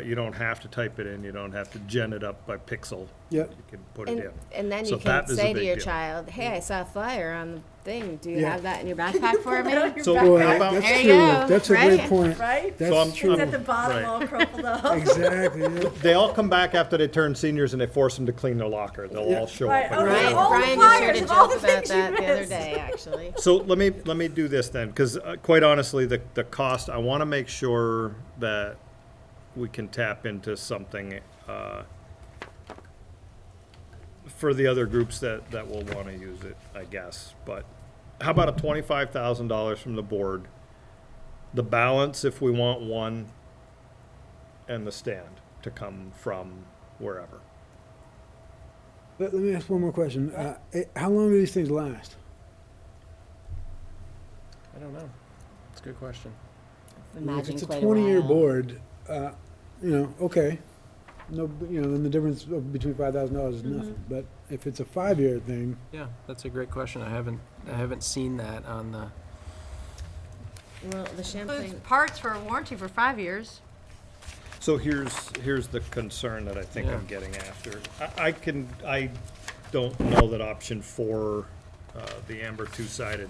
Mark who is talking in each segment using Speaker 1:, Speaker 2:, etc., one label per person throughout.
Speaker 1: But you don't have to type it in, you don't have to gen it up by pixel.
Speaker 2: Yeah.
Speaker 1: You can put it
Speaker 3: And,
Speaker 1: in.
Speaker 3: and then you
Speaker 1: So
Speaker 3: can
Speaker 1: that is a
Speaker 3: say to
Speaker 1: big
Speaker 3: your
Speaker 1: deal.
Speaker 3: child, hey, I saw a flyer on the thing. Do you
Speaker 2: Yeah.
Speaker 3: have that in your backpack for me?
Speaker 1: So
Speaker 2: Boy,
Speaker 1: how about,
Speaker 3: There
Speaker 2: that's
Speaker 3: you
Speaker 2: true.
Speaker 3: go,
Speaker 2: That's a great
Speaker 3: right?
Speaker 2: point.
Speaker 4: Right?
Speaker 1: I'm-
Speaker 2: That's true.
Speaker 4: It's at the bottom,
Speaker 1: Right.
Speaker 4: all crumpled up.
Speaker 2: Exactly. yeah.
Speaker 1: they all come back after they turn seniors and they force them to clean their locker, they'll all show
Speaker 4: Right,
Speaker 1: up. and-
Speaker 4: okay.
Speaker 3: Brian,
Speaker 4: all the
Speaker 3: Brian just
Speaker 4: flyers
Speaker 3: heard a
Speaker 4: of all
Speaker 3: joke
Speaker 4: the
Speaker 3: about
Speaker 4: things you
Speaker 3: that the other
Speaker 4: missed.
Speaker 3: day, actually.
Speaker 1: So let me, let me do this then, because quite honestly, the, the cost, I want to make sure that we can tap into something uh, for the other groups that, that will want to use it, I guess. But how about a twenty-five thousand dollars from the board? The balance, if we want one, and the stand to come from wherever.
Speaker 2: Let, let me ask one more question. Uh, eh, how long do these things last?
Speaker 5: I don't know. It's a good question.
Speaker 2: I mean,
Speaker 3: Imagine
Speaker 2: if it's
Speaker 3: quite
Speaker 2: a
Speaker 3: a
Speaker 2: 20 year
Speaker 3: while.
Speaker 2: board, uh, you know, okay. No, b- you know, and the difference of between $5,000 is nothing.
Speaker 3: Mm-hmm.
Speaker 2: But if it's a five year thing,
Speaker 5: Yeah, that's a great question. I haven't, I haven't seen that on the.
Speaker 3: Well, the
Speaker 6: Includes
Speaker 3: Champlain,
Speaker 6: parts for a warranty for five years.
Speaker 1: So here's, here's the concern that I think I'm
Speaker 5: Yeah.
Speaker 1: getting after. I, I can, I don't know that option four, uh, the amber two-sided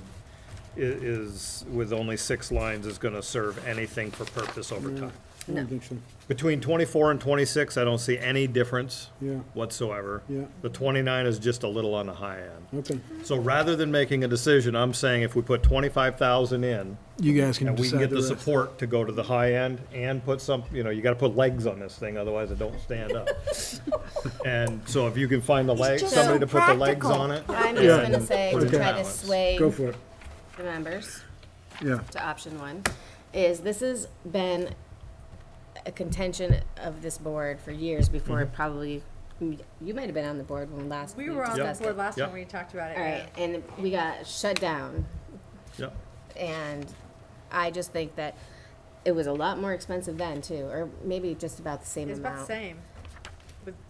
Speaker 1: i- is, with only six lines, is gonna serve anything for purpose over time.
Speaker 2: I don't think so.
Speaker 1: Between twenty-four and twenty-six, I don't see any difference
Speaker 2: Yeah.
Speaker 1: whatsoever.
Speaker 2: Yeah.
Speaker 1: The twenty-nine is just a little on the high end.
Speaker 2: Okay.
Speaker 1: So rather than making a decision, I'm saying if we put twenty-five thousand in,
Speaker 2: You guys can
Speaker 1: and we
Speaker 2: decide
Speaker 1: can get
Speaker 2: the
Speaker 1: the
Speaker 2: rest.
Speaker 1: support to go to the high end and put some, you know, you gotta put legs on this thing, otherwise it don't stand up. And so if you can find the leg,
Speaker 3: just
Speaker 1: somebody to
Speaker 3: so
Speaker 1: put the legs on it.
Speaker 3: I'm
Speaker 1: yeah,
Speaker 3: just gonna
Speaker 1: and
Speaker 3: say,
Speaker 1: put
Speaker 3: to
Speaker 1: it
Speaker 3: try to
Speaker 1: balance.
Speaker 3: sway
Speaker 2: Go for it.
Speaker 3: the members
Speaker 2: Yeah.
Speaker 3: to option one, is this has been a contention of this board for years before
Speaker 1: Mm-hmm.
Speaker 3: it probably, you might have been on the board when last we
Speaker 4: We were on the
Speaker 3: discussed it.
Speaker 4: board last time
Speaker 1: Yep.
Speaker 4: when you talked about it.
Speaker 3: All right, and we got shut down
Speaker 1: Yep.
Speaker 3: And I just think that it was a lot more expensive then too, or maybe just about the same
Speaker 4: It's about the
Speaker 3: amount.
Speaker 4: same.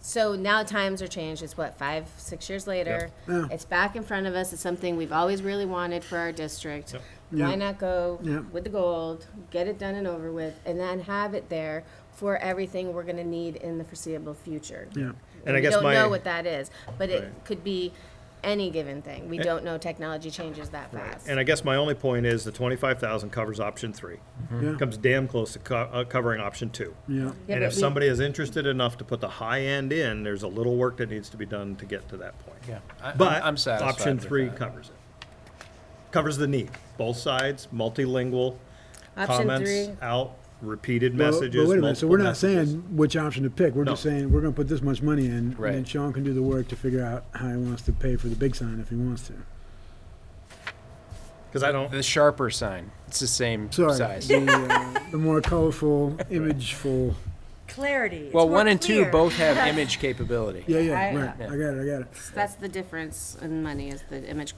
Speaker 3: So now times are changed. It's what, five, six years later?
Speaker 2: Yeah.
Speaker 3: It's back in front of us. It's something we've always really wanted for our district.
Speaker 1: Yep.
Speaker 2: Yeah.
Speaker 3: Why not go
Speaker 2: Yeah.
Speaker 3: with the gold, get it done and over with, and then have it there for everything we're gonna need in the foreseeable future?
Speaker 2: Yeah.
Speaker 1: And I
Speaker 3: we
Speaker 1: guess
Speaker 3: don't
Speaker 1: my-
Speaker 3: know what that is, but it
Speaker 1: Right.
Speaker 3: could be any given thing. We don't know technology changes that fast.
Speaker 1: And I guess my only point is the twenty-five thousand covers option three.
Speaker 2: Yeah.
Speaker 1: Comes damn close to co- uh, covering option two.
Speaker 2: Yeah.
Speaker 3: Yeah,
Speaker 1: And
Speaker 3: but
Speaker 1: if
Speaker 3: we-
Speaker 1: somebody is interested enough to put the high end in, there's a little work that needs to be done to get to that point.
Speaker 5: I-
Speaker 1: But
Speaker 5: I'm satisfied
Speaker 1: option
Speaker 5: with
Speaker 1: three
Speaker 5: that.
Speaker 1: covers it. Covers the need, both sides, multilingual,
Speaker 3: Option
Speaker 1: comments
Speaker 3: three.
Speaker 1: out, repeated
Speaker 2: Well,
Speaker 1: messages.
Speaker 2: But wait a minute, so
Speaker 1: multiple
Speaker 2: we're not
Speaker 1: messages.
Speaker 2: saying which option to pick, we're just
Speaker 1: No.
Speaker 2: saying, we're gonna put this much money in, and then
Speaker 5: Right.
Speaker 2: Sean can do the work to figure out how he wants to pay for the big sign if he wants to.
Speaker 1: Cause I don't,
Speaker 5: The sharper sign. It's the same
Speaker 2: Sorry,
Speaker 5: size.
Speaker 2: the, uh, the more colorful, imageful,
Speaker 4: Clarity. It's
Speaker 5: Well,
Speaker 4: more
Speaker 5: one and two
Speaker 4: clear.
Speaker 5: both have image capability.
Speaker 2: yeah, yeah,
Speaker 3: I-
Speaker 2: right, I got it, I got it.
Speaker 3: That's the difference in money is the image.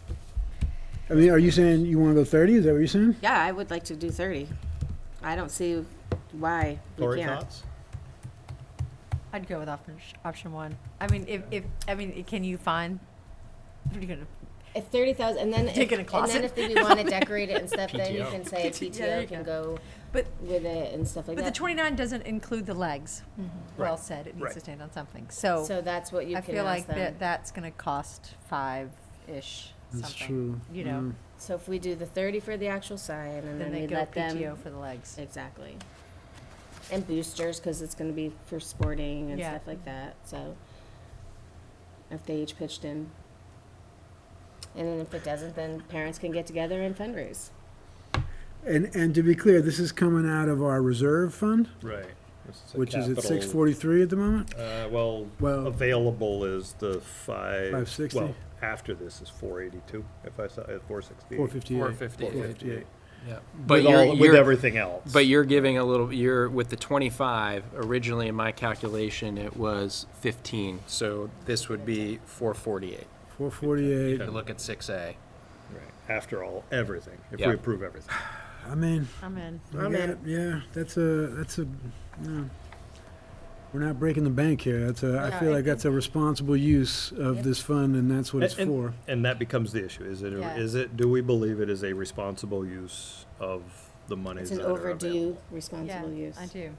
Speaker 2: I mean, are you saying you wanna go thirty, is that what you're saying?
Speaker 3: Yeah, I would like to do thirty. I don't see why we
Speaker 1: Lori
Speaker 3: can't.
Speaker 1: thoughts?
Speaker 6: I'd go with option, option one.
Speaker 4: I mean, if, if, I mean, i- can you find, what are you gonna,
Speaker 3: If thirty thousand, and then, if-
Speaker 4: Take it in a
Speaker 3: and then
Speaker 4: closet.
Speaker 3: if we wanna decorate it and stuff, then you can say
Speaker 4: there
Speaker 3: PTO
Speaker 4: you
Speaker 3: can go
Speaker 4: but,
Speaker 3: with it and stuff like
Speaker 4: but the
Speaker 3: that.
Speaker 4: twenty-nine doesn't include the legs. Well
Speaker 1: Right.
Speaker 4: said, it
Speaker 1: Right.
Speaker 4: needs to stand on something, so
Speaker 3: So that's what you
Speaker 6: I
Speaker 3: can
Speaker 6: feel like
Speaker 3: ask
Speaker 6: that,
Speaker 3: them.
Speaker 6: that's gonna cost five-ish
Speaker 2: That's
Speaker 6: something.
Speaker 2: true,
Speaker 6: You know,
Speaker 3: So if we do the thirty for the actual sign and
Speaker 6: then
Speaker 3: then
Speaker 6: they
Speaker 3: we
Speaker 6: go
Speaker 3: let
Speaker 6: PTO
Speaker 3: them,
Speaker 6: for the legs.
Speaker 3: exactly. And boosters, cause it's gonna be for sporting and
Speaker 6: Yeah.
Speaker 3: stuff like that, so. If they each pitched in. And then if it doesn't, then parents can get together and fundraise.
Speaker 2: And, and to be clear, this is coming out of our reserve fund,
Speaker 1: Right.
Speaker 2: which is at six forty-three at the moment?
Speaker 1: Uh, well,
Speaker 2: Well-
Speaker 1: available is the five.
Speaker 2: 560?
Speaker 1: Well, after this is four eighty-two, if I saw, uh, four sixty.
Speaker 2: Four fifty-eight.
Speaker 5: Four fifty.
Speaker 2: fifty-eight.
Speaker 5: Yeah.
Speaker 1: With
Speaker 5: But you're,
Speaker 1: all, with
Speaker 5: you're,
Speaker 1: everything else.
Speaker 5: but you're giving a little, you're, with the twenty-five, originally in my calculation, it was fifteen. So this would be four forty-eight.
Speaker 2: Four forty-eight,
Speaker 5: If you look at six A.
Speaker 1: Right. After all, everything, if
Speaker 5: Yeah.
Speaker 1: we approve everything.
Speaker 2: I mean,
Speaker 6: I'm in.
Speaker 2: I
Speaker 3: I'm
Speaker 2: got- yeah, that's a, that's a, no. We're not breaking the bank here, that's a, I feel like that's a responsible use of this fund, and that's what it's
Speaker 1: And-
Speaker 2: for.
Speaker 1: And that becomes the issue, is it,
Speaker 6: Yeah.
Speaker 1: is it, do we believe it is a responsible use of the monies that
Speaker 3: It's an
Speaker 1: are available?
Speaker 3: overdue
Speaker 6: Yeah,
Speaker 3: responsible use.
Speaker 6: I do.